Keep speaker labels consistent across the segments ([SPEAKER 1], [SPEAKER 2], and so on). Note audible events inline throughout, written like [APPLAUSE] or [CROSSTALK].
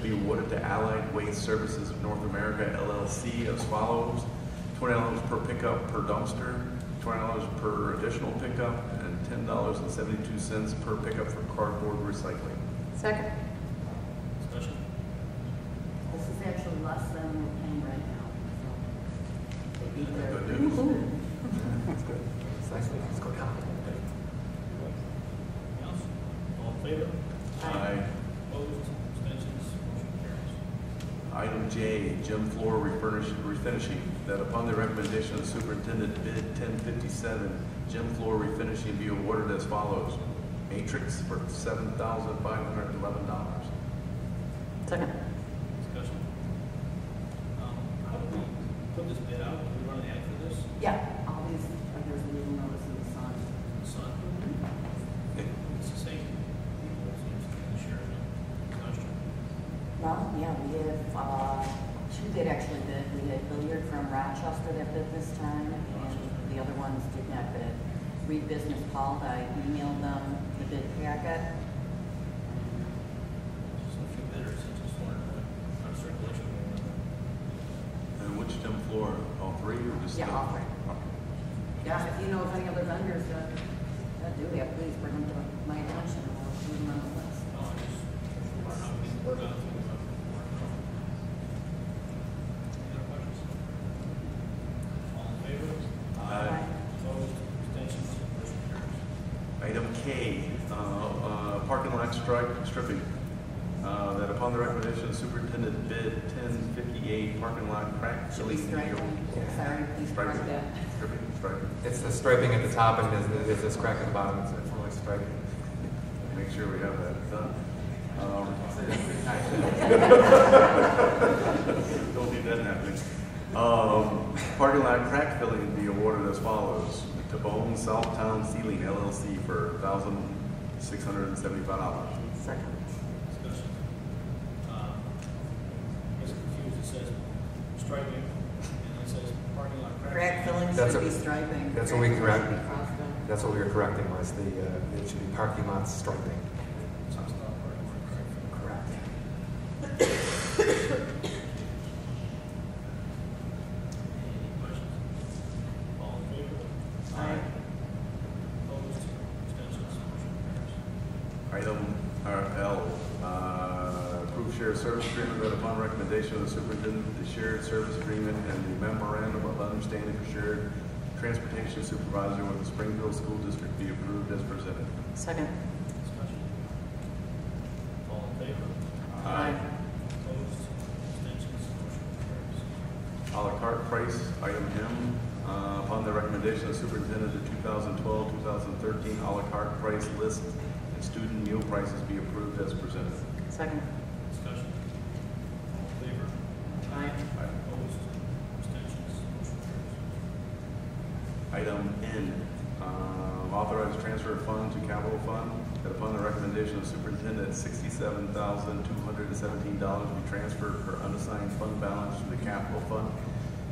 [SPEAKER 1] be awarded to Allied Waste Services of North America LLC as follows. Twenty dollars per pickup per dumpster, twenty dollars per additional pickup, and ten dollars and seventy-two cents per pickup for cardboard recycling.
[SPEAKER 2] Second.
[SPEAKER 3] Discussion?
[SPEAKER 4] This is actually less than we're paying right now, so. They beat their.
[SPEAKER 1] Good news.
[SPEAKER 2] That's good. It's nice we can score confident.
[SPEAKER 3] Anything else? All in favor?
[SPEAKER 1] Aye.
[SPEAKER 3] Opposed? Abstentions? Motion carries.
[SPEAKER 1] Item J, gym floor refurnish- refinishing, that upon the recommendation of superintendent bid ten fifty-seven, gym floor refinishing be awarded as follows. Matrix for seven thousand five hundred and eleven dollars.
[SPEAKER 2] Second.
[SPEAKER 3] Discussion? Um, how do we put this bid out? Do we run an ad for this?
[SPEAKER 4] Yeah, all these, like, there's a little notice in the sun.
[SPEAKER 3] Sun,
[SPEAKER 4] Mm-hmm.
[SPEAKER 3] it's the same. People seems to be sharing it. Question?
[SPEAKER 4] Well, yeah, we have, uh, two that actually bid. We had Billiard from Rochester that bid this time, and the other ones did not bid. Reed Business called, I emailed them the bid packet.
[SPEAKER 3] Just a few bidders, it's just one, uh, not circulation.
[SPEAKER 1] And which gym floor, all three or just?
[SPEAKER 4] Yeah,
[SPEAKER 1] the-
[SPEAKER 4] all three. Yeah, if you know of any other vendors that, that do that, please bring them to my attention, and we'll put them on the list.
[SPEAKER 3] Oh, it's just, we're not being worked on. Any other questions? All in favor?
[SPEAKER 1] Aye.
[SPEAKER 3] Opposed? Abstentions? Motion carries.
[SPEAKER 1] Item K, uh, uh, parking lot strike, stripping. Uh, that upon the recommendation of superintendent bid ten fifty-eight, parking lot crack
[SPEAKER 4] Should we
[SPEAKER 1] filling.
[SPEAKER 4] strike them? Sorry, please
[SPEAKER 1] Strike
[SPEAKER 4] correct
[SPEAKER 1] it.
[SPEAKER 4] that.
[SPEAKER 1] Stripping, striking.
[SPEAKER 2] It's the striping at the top and there's, there's this crack at the bottom. It's it's only striking.
[SPEAKER 1] Make sure we have that done. Um, [LAUGHS] Don't need that happening. Um, Parking lot crack filling be awarded as follows. To Bone Southtown Ceiling LLC for $1,675.
[SPEAKER 2] Second.
[SPEAKER 3] Discussion. Um, I was confused, it says striping, and it says parking lot crack.
[SPEAKER 4] Crack filling
[SPEAKER 2] That's
[SPEAKER 4] should
[SPEAKER 2] a-
[SPEAKER 4] be striping.
[SPEAKER 2] that's what we
[SPEAKER 4] Crack
[SPEAKER 2] correct.
[SPEAKER 4] filling should be crossed out.
[SPEAKER 2] That's what we were correcting was the, uh, it should be parking lot striping.
[SPEAKER 3] Some stuff, parking lot crack filling.
[SPEAKER 4] Correct.
[SPEAKER 3] Any questions? All in favor?
[SPEAKER 4] Aye.
[SPEAKER 3] Opposed? Abstentions? Motion carries.
[SPEAKER 1] Item uh, L, uh, approve shared service agreement that upon recommendation of the superintendent, the shared service agreement and the memorandum of understanding for shared transportation supervisor with the Springfield School District be approved as presented.
[SPEAKER 2] Second.
[SPEAKER 3] Discussion. All in favor?
[SPEAKER 1] Aye.
[SPEAKER 3] Opposed? Abstentions? Motion carries.
[SPEAKER 1] A la carte price, item M, uh, upon the recommendation of superintendent, the 2012-2013 a la carte price list and student meal prices be approved as presented.
[SPEAKER 2] Second.
[SPEAKER 3] Discussion. All in favor?
[SPEAKER 4] Aye.
[SPEAKER 1] Aye.
[SPEAKER 3] Opposed? Abstentions? Motion carries.
[SPEAKER 1] Item N, uh, authorize transfer of fund to capital fund, that upon the recommendation of superintendent, $67,217 be transferred for unassigned fund balance to the capital fund.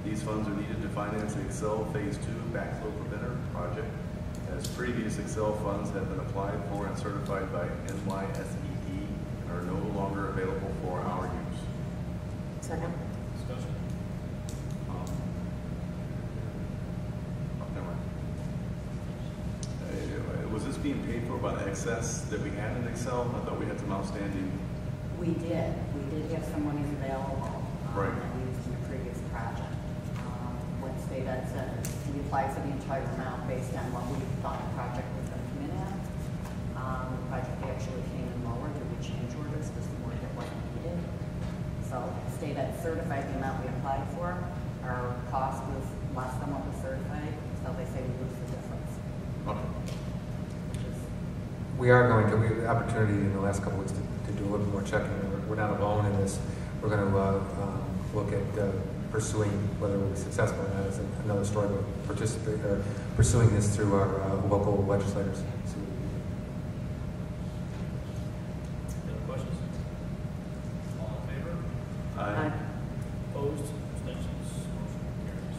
[SPEAKER 1] These funds are needed to finance the Excel Phase 2 backflow preventer project, as previous Excel funds have been applied for and certified by NYSED E and are no longer available for our use.
[SPEAKER 2] Second.
[SPEAKER 3] Discussion.
[SPEAKER 1] Um, oh, never mind. Uh, Was this being paid for by the excess that we had in Excel? I thought we had some outstanding.
[SPEAKER 4] We did, we did have some monies available. um,
[SPEAKER 1] Right.
[SPEAKER 4] That we used in the previous project. Um, What state had said is we applied for the entire amount based on what we thought the project was going to come in at. Um, The project actually came in lower, there were change orders, because the work that wasn't needed. So state had certified the amount we applied for, our cost was less than what was certified, so they say we lose the difference,
[SPEAKER 1] Okay.
[SPEAKER 4] which is
[SPEAKER 2] We are going to, we have the opportunity in the last couple weeks to, to do a little more checking. We're- We're not alone in this. We're going to, uh, um, look at uh, pursuing, whether we're successful or not is another story, but participate, or pursuing this through our, uh, local legislators. See what we can do.
[SPEAKER 3] Any other questions? All in favor?
[SPEAKER 1] Aye.
[SPEAKER 3] Opposed? Abstentions? Motion carries.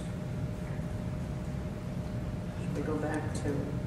[SPEAKER 2] Should we go back to
[SPEAKER 1] uh,
[SPEAKER 3] Uh,